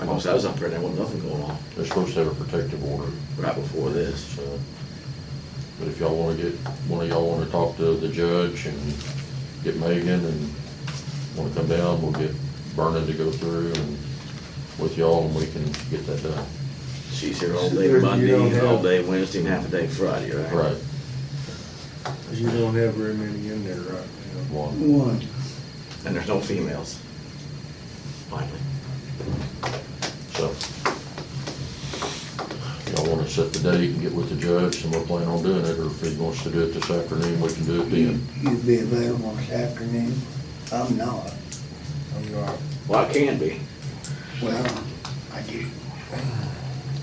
I know, 'cause I was up there and there wasn't nothing going on They're supposed to have a protective order, right before this. so. But if y'all wanna get, one of y'all wanna talk to the judge and get Megan and wanna come down, we'll get Vernon to go through and with y'all and we can get that done. She's here all So day there you Monday, don't and all have- day Wednesday, and half a day Friday, right? Right, You don't have very many in there right now. one, One, And there's no females. Finally. so. Y'all wanna set the date and get with the judge and we'll plan on doing it, or if he wants to do it this afternoon, we can do it then. you'd be available this afternoon? I'm not. I'm not, Well, I can be. Well, I do.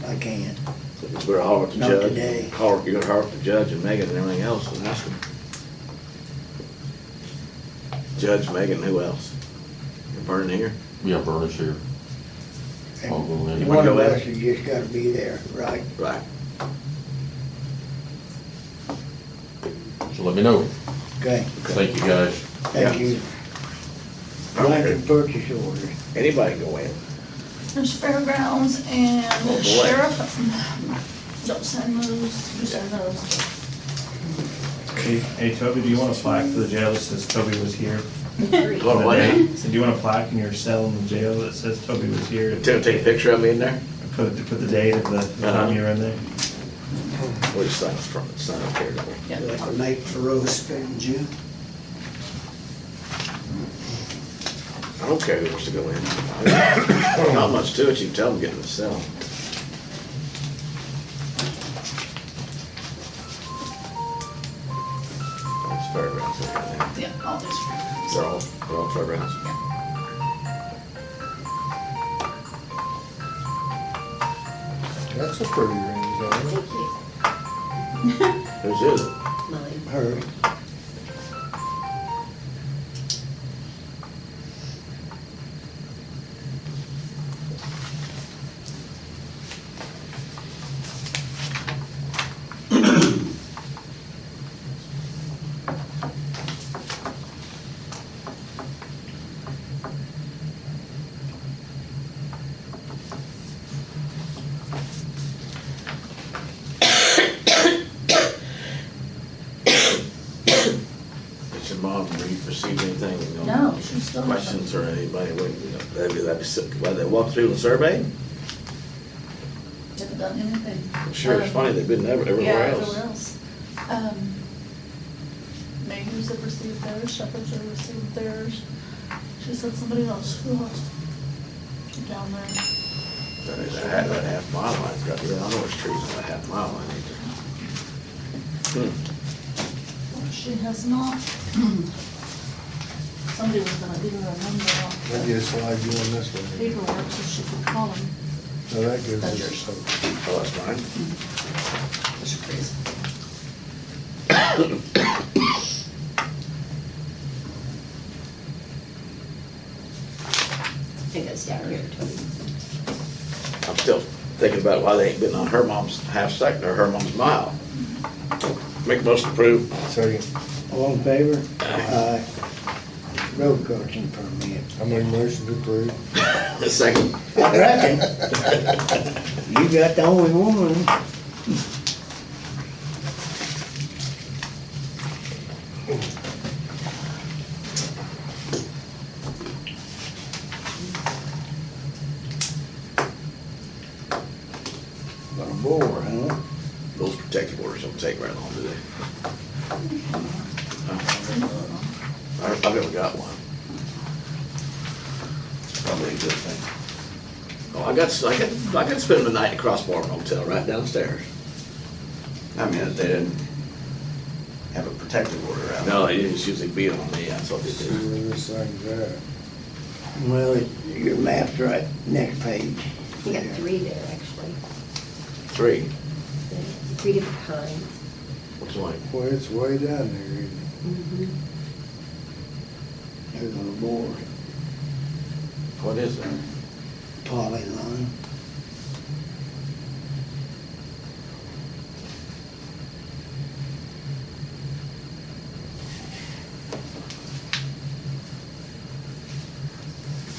I can't. We're all with the Not judge. today. Call, you gotta with the judge and Megan and everything else and ask them. Judge, Megan, who else? And Vernon here? Yeah, Vernon's here. And I'll go in. One of us has just gotta be there, right? Right. So let me know. Okay, Thank you, guys. thank you. Blanket purchase order. Anybody can go in. There's fairgrounds Oh, boy. and sheriff. Don't send those, you send those. Hey, hey, Toby, do you want a plaque for the jail that says Toby was here? Lord, why not? So do you want a plaque in your cell in the jail that says Toby was here? Tim, take a picture of me in there? Put, put the date of the the time you were in there? We'll just sign up front, sign up here. don't we? Like Nate Ferrell spent June. I don't care who wants to go in. Not much to it, you can tell them get in the cell. That's fairgrounds, they're down there. Yeah, all these fairgrounds. they're all, they're all fairgrounds. that's a pretty range, isn't it? Thank you, Who's is it? Molly. Her, Did your mom re- receive anything? you know, No, she's still. Questions or anybody, what, you know, that'd be, that'd be, sick. why they walk through the survey? Haven't done anything. I'm sure it's funny, they've been ever- everywhere Uh, Yeah, everywhere else. else. Um, Mayors have received theirs, shepherds have received theirs. She said somebody else, who else? Down there. That is a half, that half mile line's got, I know it's trees on that half mile line. ain't there? She has not. Somebody was gonna give her a number off That the gets like doing this one. paperwork so she could call him. Now that gives us some. Oh, that's mine? That's crazy. I think it's down here, Toby. I'm still thinking about why they ain't been on her mom's half second or her mom's mile. Make most approve. Second, all in favor? Aye. Road crossing permit. I'm in motion to approve. Second. I reckon. You got the only one. Got a boar, huh? Those protective orders don't take very long, do they? I- I've never got one. It's probably a good thing. Oh, I got, I got, I got to spend the night at Crossbar Motel right downstairs. I mean, if they didn't have a protective order out. No, they just usually beat on me, that's what they See do. where this thing's at. Well, it- your map's right, next page. We got three there, actually, Three, three different kinds. which one? Boy, it's way down there, isn't it? There's a boar, What is that? poly line.